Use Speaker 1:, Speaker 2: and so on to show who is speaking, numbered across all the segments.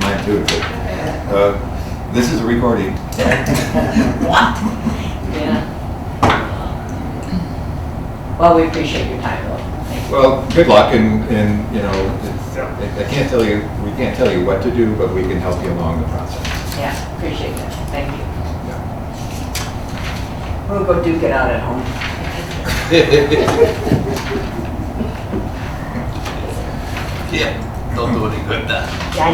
Speaker 1: too. but, uh, This is a recording.
Speaker 2: What? Yeah. Well, we appreciate your time, though. Thank you.
Speaker 1: Well, good luck and, and, you know, it's- I I can't tell you, we can't tell you what to do, but we can help you along the process.
Speaker 2: Yeah, appreciate that. Thank you.
Speaker 1: Yeah.
Speaker 2: We'll go duke it out at home.
Speaker 3: Yeah, don't do any good then.
Speaker 2: Yeah, I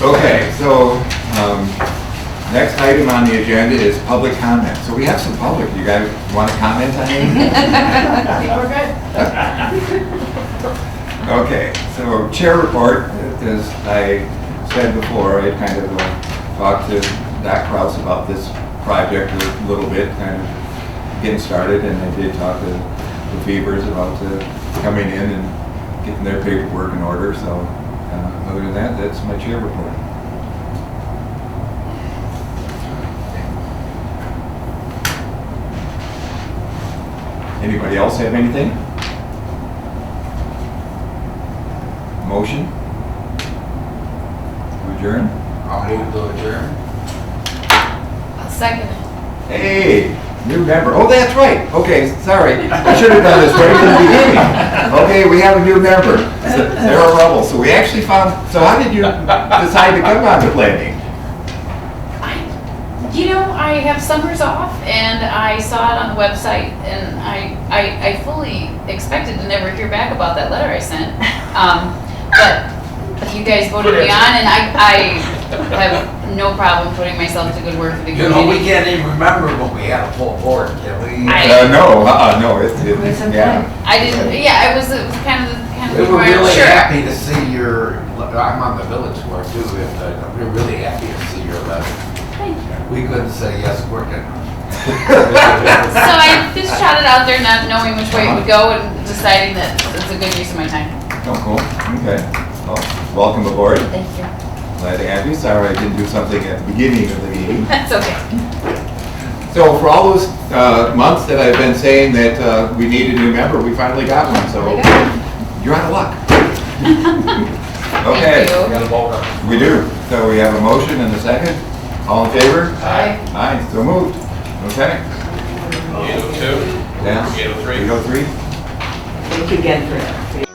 Speaker 2: know.
Speaker 1: Okay, so, um, next item on the agenda is public comment. So we have some public. You guys want to comment on anything?
Speaker 2: I think we're good.
Speaker 1: Okay, so chair report, as I said before, I kind of uh, talked to Doc Kraus about this project a little bit, kind of getting started, and I did talk to the Beavers about uh, coming in and getting their paperwork in order, so uh, other than that, that's my chair report. Anybody else have anything? Motion? To Adjourn?
Speaker 3: I'll move to adjourn.
Speaker 4: I'll second it.
Speaker 1: Hey, new member. Oh, that's right. Okay, sorry. I should have done this right from the beginning. Okay, we have a new member, Sarah Rubble. So we actually found, so how did you decide to come on to planning?
Speaker 4: I, you know, I have summers off and I saw it on the website and I, I, I fully expected to never hear back about that letter I sent. Um, but you guys voted me on and I, I have no problem putting myself to good work for the
Speaker 3: You know, we
Speaker 4: community.
Speaker 3: can't even remember when we had a full board, can we?
Speaker 1: Uh,
Speaker 4: I-
Speaker 1: no, uh-uh, no, it's,
Speaker 2: Wait,
Speaker 1: it's,
Speaker 2: some
Speaker 1: yeah.
Speaker 4: I didn't, yeah, it was, it was kind of, kind
Speaker 3: We
Speaker 4: of.
Speaker 3: were really
Speaker 4: Sure.
Speaker 3: happy to see your, I'm on the village board too, and uh, we we're really happy to see your letter.
Speaker 4: Thank you.
Speaker 3: We couldn't say yes quick enough.
Speaker 4: So I just shot it out there not knowing which way it would go and deciding that it's a good use of my time.
Speaker 1: Oh, cool. Okay. Well, Welcome aboard.
Speaker 4: Thank you.
Speaker 1: Glad to have you. Sorry I didn't do something at the beginning of the meeting.
Speaker 4: That's okay.
Speaker 1: So for all those uh, months that I've been saying that uh, we need a new member, we finally got one, so
Speaker 4: We got
Speaker 1: you're out of luck.
Speaker 4: Thank
Speaker 1: Okay,
Speaker 4: you.
Speaker 3: We got a vote on it.
Speaker 1: we do. So we have a motion and a second. All in favor?
Speaker 4: Bye.
Speaker 1: Aye, so moved. Okay.
Speaker 5: 802,
Speaker 1: Yeah.
Speaker 5: 803.
Speaker 1: 803?
Speaker 2: Thank you again for